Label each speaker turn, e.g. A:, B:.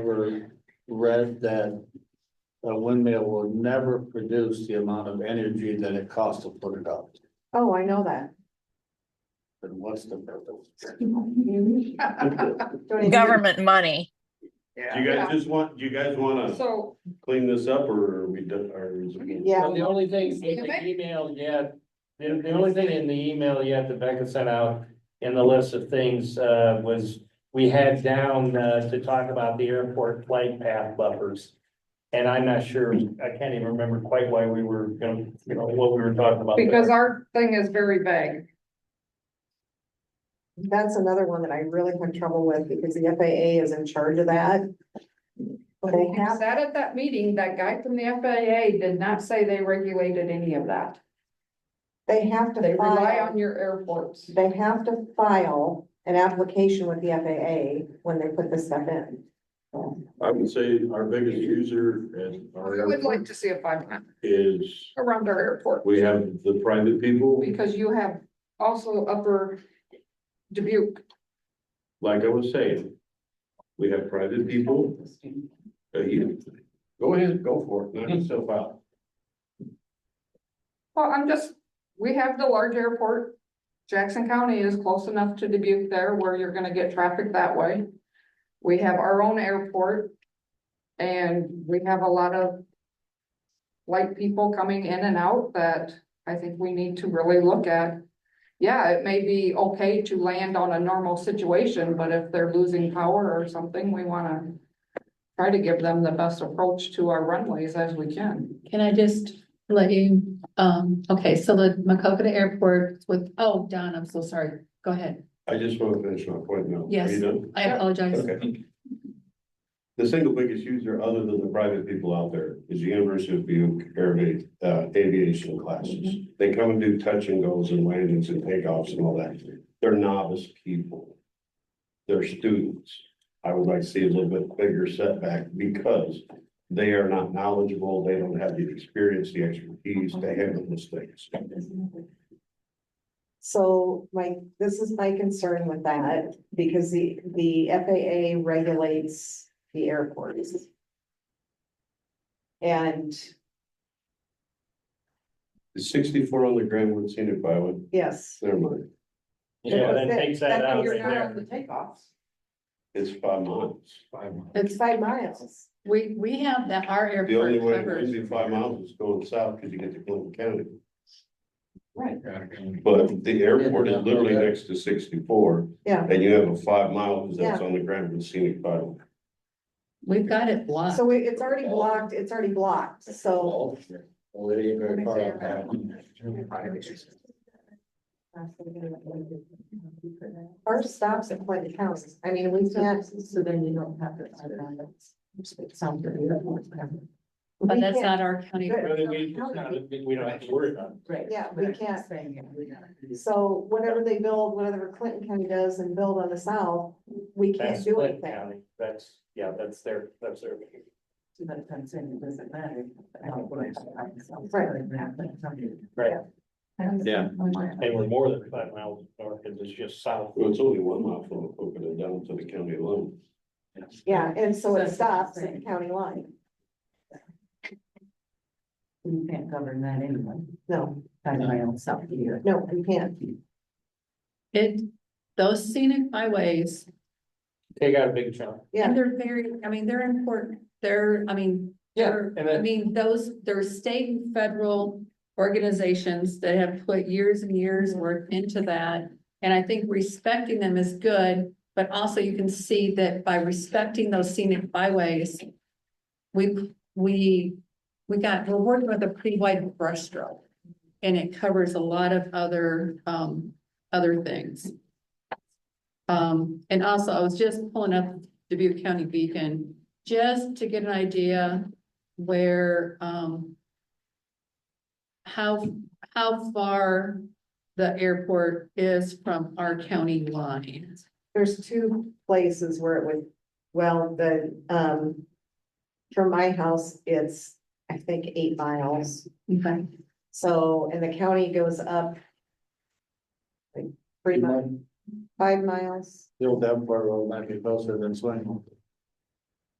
A: ever read that a windmill will never produce the amount of energy that it costs to put it up?
B: Oh, I know that.
A: Then what's the purpose?
B: Don't even-
C: government money.
D: Do you guys just want, do you guys wanna
B: So,
D: clean this up or are we done, or is it?
A: Mm-hmm.
B: yeah,
E: Well, the only thing, in
B: Excuse
E: the email, yeah, the, the only thing in the email yet that Becca sent out in the list of things, uh, was we had down, uh, to talk about the airport flight path buffers. And I'm not sure, I can't even remember quite why we were gonna, you know, what we were talking about. there.
F: Because our thing is very vague.
B: that's another one that I really had trouble with because the FAA is in charge of that. They
F: We
B: have,
F: Sat at that meeting, that guy from the FAA did not say they regulated any of that.
B: they have
F: They
B: to
F: rely
B: file,
F: on your airports.
B: they have to file an application with the FAA when they put this stuff in.
D: I would say our biggest user and
F: I would like
D: our
F: to see a five mile
D: is,
F: around our airport,
D: we have the private people,
F: because you have also upper Dubuque.
D: like I was saying. We have private people, uh, you, go ahead, go for it, knock yourself out.
F: Well, I'm just, we have the large airport. Jackson County is close enough to Dubuque there where you're gonna get traffic that way. We have our own airport. And we have a lot of. Light people coming in and out that I think we need to really look at. Yeah, it may be okay to land on a normal situation, but if they're losing power or something, we wanna. Try to give them the best approach to our runways as we can.
G: Can I just let you, um, okay, so the Macocata Airport with, oh, Don, I'm so sorry. Go ahead.
D: I just wanna finish my point now. Are you
G: Yes.
D: done?
G: I apologize.
D: Okay. The single biggest user, other than the private people out there, is the University of Buke Air- uh, Aviation classes. They come and do touch and goes and landings and takeoffs and all that. They're novice people. They're students. I would like to see a little bit bigger setback because they are not knowledgeable, they don't have the experience, the expertise, they handle those things.
B: So my, this is my concern with that, because the, the FAA regulates the airports. And,
D: Is sixty-four on the Grand Wood Scenic Byway,
B: yes,
D: never mind,
E: Yeah, that takes that out
F: You're
E: right
F: not on the
E: there.
F: takeoffs.
D: it's five miles.
B: it's five miles.
G: We, we have that, our
D: The only
G: airport
D: way to
G: covers.
D: be five miles is going south because you get to Clinton County,
A: Gotta go.
D: but the airport is literally next to sixty-four.
B: Yeah.
D: And you have a five mile that's on the Grand Rapids Scenic Byway.
G: We've got it blocked.
B: So it- it's already blocked, it's already blocked, so.
A: Well, it ain't very far up that.
B: Our stops at Clinton House, I mean, we can't. So then you don't have to.
G: But that's not our county.
B: Good.
E: Really, we, it's not a big- we don't have to worry about it.
B: Yeah, we can't. So whatever they build, whatever Clinton County does and build on the south, we can't
E: That's
B: do
E: Clinton
B: anything.
E: County. That's, yeah, that's their, that's their. Right.
A: Yeah.
E: They were more than five miles north, because it's just south.
D: Well, it's only one mile from Oakland down to the county line.
B: Yeah, and so it stops at the county line.
H: You can't govern that anyway,
B: No,
H: by my own self here.
B: no, we can't.
G: It, those scenic byways,
E: They got a big chunk.
B: Yeah.
G: and they're very, I mean, they're important. They're, I mean, they're-
E: and
G: I
E: then-
G: mean, those, there are state and federal organizations that have put years and years work into that. And I think respecting them is good, but also you can see that by respecting those scenic byways, we, we, we got, we're working with a pretty wide brushstroke. And it covers a lot of other, um, other things. Um, and also, I was just pulling up Dubuque County Beacon, just to get an idea where, um, how, how far the airport is from our county line.
B: There's two places where it would, well, the, um, from my house, it's, I think, eight miles.
G: Okay.
B: So, and the county goes up like three miles, five miles.
A: The old Davenport Road might be closer than Swing.